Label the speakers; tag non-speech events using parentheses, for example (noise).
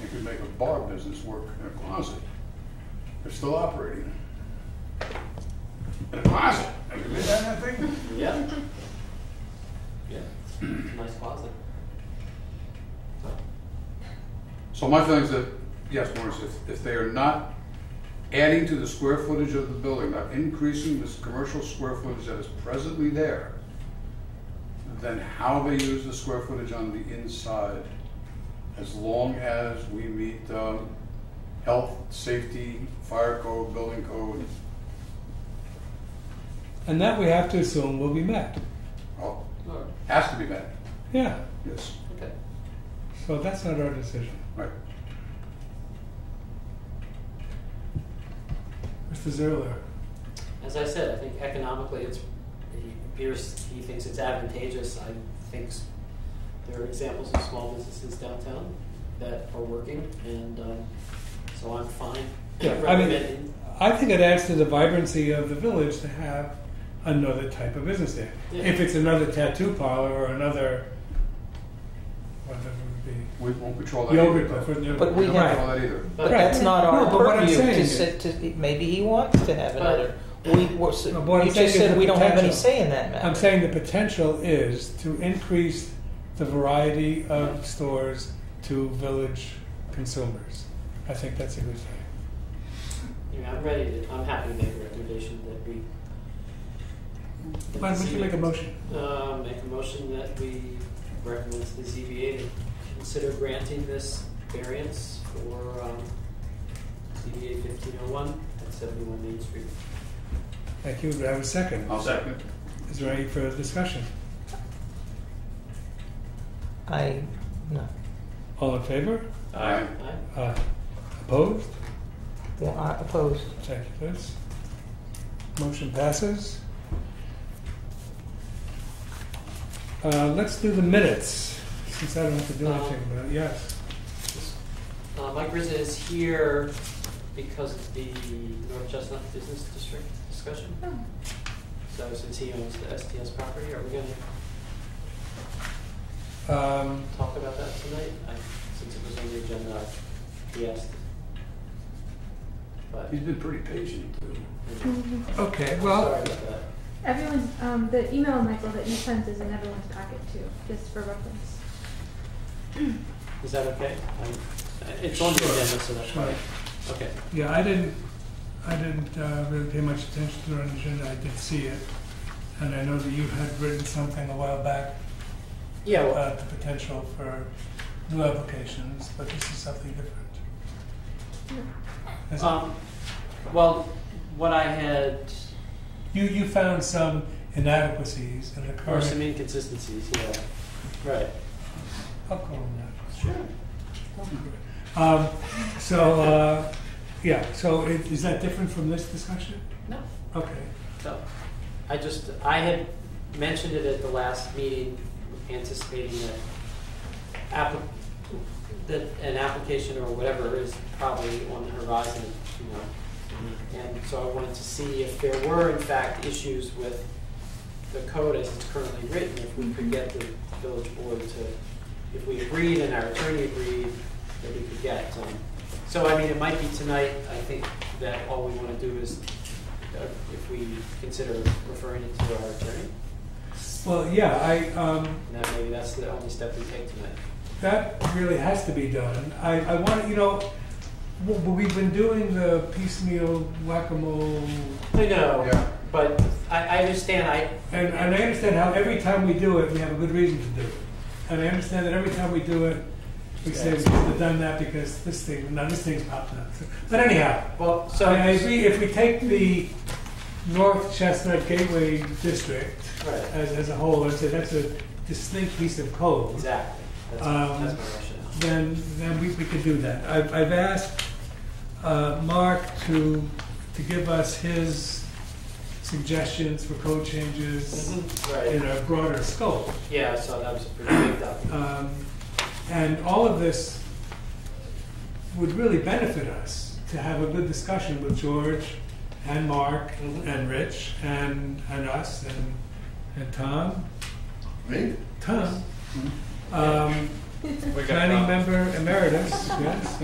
Speaker 1: bar business work in a closet. They're still operating. In a closet. Have you been down that thing?
Speaker 2: (laughs) Yeah. Yeah. It's a nice closet.
Speaker 1: So my feeling is that, yes, Morris, if, if they are not adding to the square footage of the building, not increasing this commercial square footage that is presently there, then how they use the square footage on the inside, as long as we meet, um, health, safety, fire code, building code,
Speaker 3: And that we have to assume will be met.
Speaker 1: oh,
Speaker 2: Alright,
Speaker 1: has to be met,
Speaker 3: Yeah,
Speaker 1: yes,
Speaker 2: okay.
Speaker 3: so that's not our decision.
Speaker 1: right.
Speaker 3: Mr. Zerler,
Speaker 2: As I said, I think economically, it's, he, appears he thinks it's advantageous. I think s- there are examples of small businesses downtown that are working, and, um, so I'm fine
Speaker 3: Yeah, I mean-
Speaker 2: recommending,
Speaker 3: I think it adds to the vibrancy of the village to have another type of business there.
Speaker 2: Yeah.
Speaker 3: If it's another tattoo parlor or another, whatever it would be,
Speaker 1: We won't control that either.
Speaker 3: yogurt for new.
Speaker 4: But we
Speaker 1: don't
Speaker 4: have-
Speaker 1: control that either.
Speaker 4: But
Speaker 2: Right.
Speaker 4: that's not
Speaker 3: No,
Speaker 4: our
Speaker 3: but what I'm
Speaker 4: purview
Speaker 3: saying
Speaker 4: to
Speaker 3: is-
Speaker 4: sit, to, maybe he wants to have another. We, we're, s-
Speaker 3: No, but what I'm
Speaker 4: you
Speaker 3: saying
Speaker 4: just
Speaker 3: is the
Speaker 4: said we don't have any
Speaker 3: potential.
Speaker 4: say in that matter.
Speaker 3: I'm saying the potential is to increase the variety of stores to village consumers. I think that's a good thing.
Speaker 2: you know, I'm ready to, I'm happy to make a recommendation that we. that
Speaker 3: Why
Speaker 2: the
Speaker 3: don't you make a
Speaker 2: ZBA
Speaker 3: motion?
Speaker 2: Uh, make a motion that we recommend to the ZBA to consider granting this variance for, um, ZBA fifteen oh one at seventy-one Main Street.
Speaker 3: Thank you. Do I have a second?
Speaker 1: I'll second it.
Speaker 3: Is there any further discussion?
Speaker 4: I, no.
Speaker 3: All in favor?
Speaker 1: Aye.
Speaker 2: Aye?
Speaker 3: Uh, opposed?
Speaker 4: Well, I opposed.
Speaker 3: Thank you, Liz. Motion passes. Uh, let's do the minutes, since I don't have to do anything about it. Yes.
Speaker 2: Uh, Mike Rizza is here because of the North Chestnut Business District discussion. So since he owns the STS property, are we gonna
Speaker 3: Um,
Speaker 2: talk about that tonight? I, since it was on the agenda, he asked. But,
Speaker 1: He's been pretty patient, too.
Speaker 2: I'm
Speaker 3: okay,
Speaker 2: sorry
Speaker 3: well,
Speaker 2: about that.
Speaker 5: Everyone's um, the email, Michael, that you sent is in everyone's packet too, just for reference.
Speaker 2: Is that okay? I'm- It's on the agenda, so that's
Speaker 3: Sure.
Speaker 2: fine. Okay.
Speaker 3: yeah, I didn't, I didn't uh, really pay much attention to it on the agenda. I did see it. And I know that you had written something a while back
Speaker 2: Yeah, well,
Speaker 3: about the potential for new applications, but this is something different. Is it?
Speaker 2: um, well, what I had,
Speaker 3: You, you found some inadequacies in the
Speaker 2: or
Speaker 3: current.
Speaker 2: some inconsistencies, yeah. Right.
Speaker 3: I'll call them that.
Speaker 2: Sure.
Speaker 3: Oh, Um, so, uh, yeah, so it, is that different from this discussion?
Speaker 2: No.
Speaker 3: Okay.
Speaker 2: So, I just, I had mentioned it at the last meeting, anticipating that app, that an application or whatever is probably on the horizon, you know. And so I wanted to see if there were in fact issues with the code as it's currently written, if we could get the village board to, if we agreed and our attorney agreed, that we could get. um, So I mean, it might be tonight, I think that all we wanna do is, uh, if we consider referring it to our attorney,
Speaker 3: Well, yeah, I, um,
Speaker 2: and that maybe that's the only step we take tonight.
Speaker 3: that really has to be done. I, I want, you know, w- w- we've been doing the piecemeal whack-a-mole,
Speaker 2: I know,
Speaker 1: Yeah.
Speaker 2: but I, I understand, I.
Speaker 3: and, and I understand how every time we do it, we have a good reason to do it. And I understand that every time we do it, we say we should have done that because this thing, now this thing's popped up. But anyhow,
Speaker 2: Well,
Speaker 3: So
Speaker 2: so.
Speaker 3: I agree, if we take the North Chestnut Gateway District
Speaker 2: Right,
Speaker 3: as, as a whole, and say that's a distinct piece of code,
Speaker 2: exactly, that's,
Speaker 3: Um,
Speaker 2: that's my rationale.
Speaker 3: then, then we, we could do that. I've, I've asked, uh, Mark to, to give us his suggestions for code changes
Speaker 2: Mhm,
Speaker 3: in
Speaker 2: Right,
Speaker 3: a broader scope.
Speaker 2: yeah, so that was a pretty big document.
Speaker 3: Um, and all of this would really benefit us to have a good discussion with George and Mark
Speaker 2: Mhm.
Speaker 3: and Rich and, and us and, and Tom.
Speaker 1: Me? Mm-hmm.
Speaker 3: Tom, um, planning member emeritus, yes.